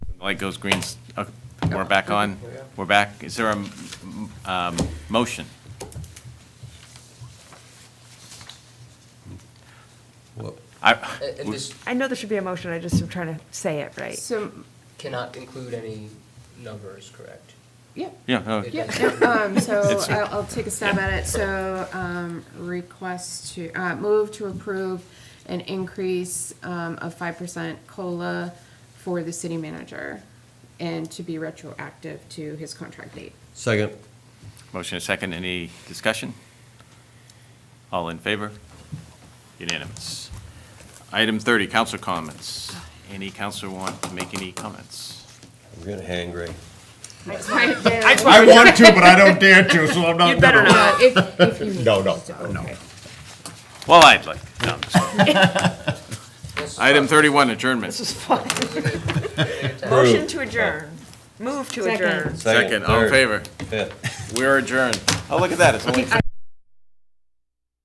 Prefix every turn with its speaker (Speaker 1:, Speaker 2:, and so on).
Speaker 1: Light goes green, s- uh, we're back on, we're back. Is there a m- um, motion? I,
Speaker 2: And and this
Speaker 3: I know there should be a motion, I just am trying to say it right.
Speaker 4: So,
Speaker 2: cannot include any numbers, correct?
Speaker 4: yeah,
Speaker 1: yeah, no,
Speaker 2: It
Speaker 4: yeah,
Speaker 2: does-
Speaker 4: no, um, so
Speaker 1: It's-
Speaker 4: I'll, I'll take a stab at it, so, um, request to, uh, move to approve an increase, um, of five percent COLA for the city manager and to be retroactive to his contract date.
Speaker 5: Second.
Speaker 1: motion and second, any discussion? All in favor? Unanimous. Item 30, council comments. Any council want to make any comments?
Speaker 5: We're getting hangry.
Speaker 6: I want to, but I don't dare to, so I'm not
Speaker 3: better
Speaker 6: gonna.
Speaker 4: Uh, if, if you need
Speaker 6: No, no,
Speaker 4: to, okay.
Speaker 1: Well, I'd like, no, I'm just kidding.
Speaker 2: This is
Speaker 1: Item 31, adjournment.
Speaker 3: This is fun. Motion
Speaker 5: Approved.
Speaker 3: to adjourn, move to
Speaker 4: Second.
Speaker 3: adjourn.
Speaker 1: Second, all in
Speaker 5: third,
Speaker 1: favor?
Speaker 5: fifth.
Speaker 1: We're adjourned. Oh, look at that, it's only
Speaker 4: I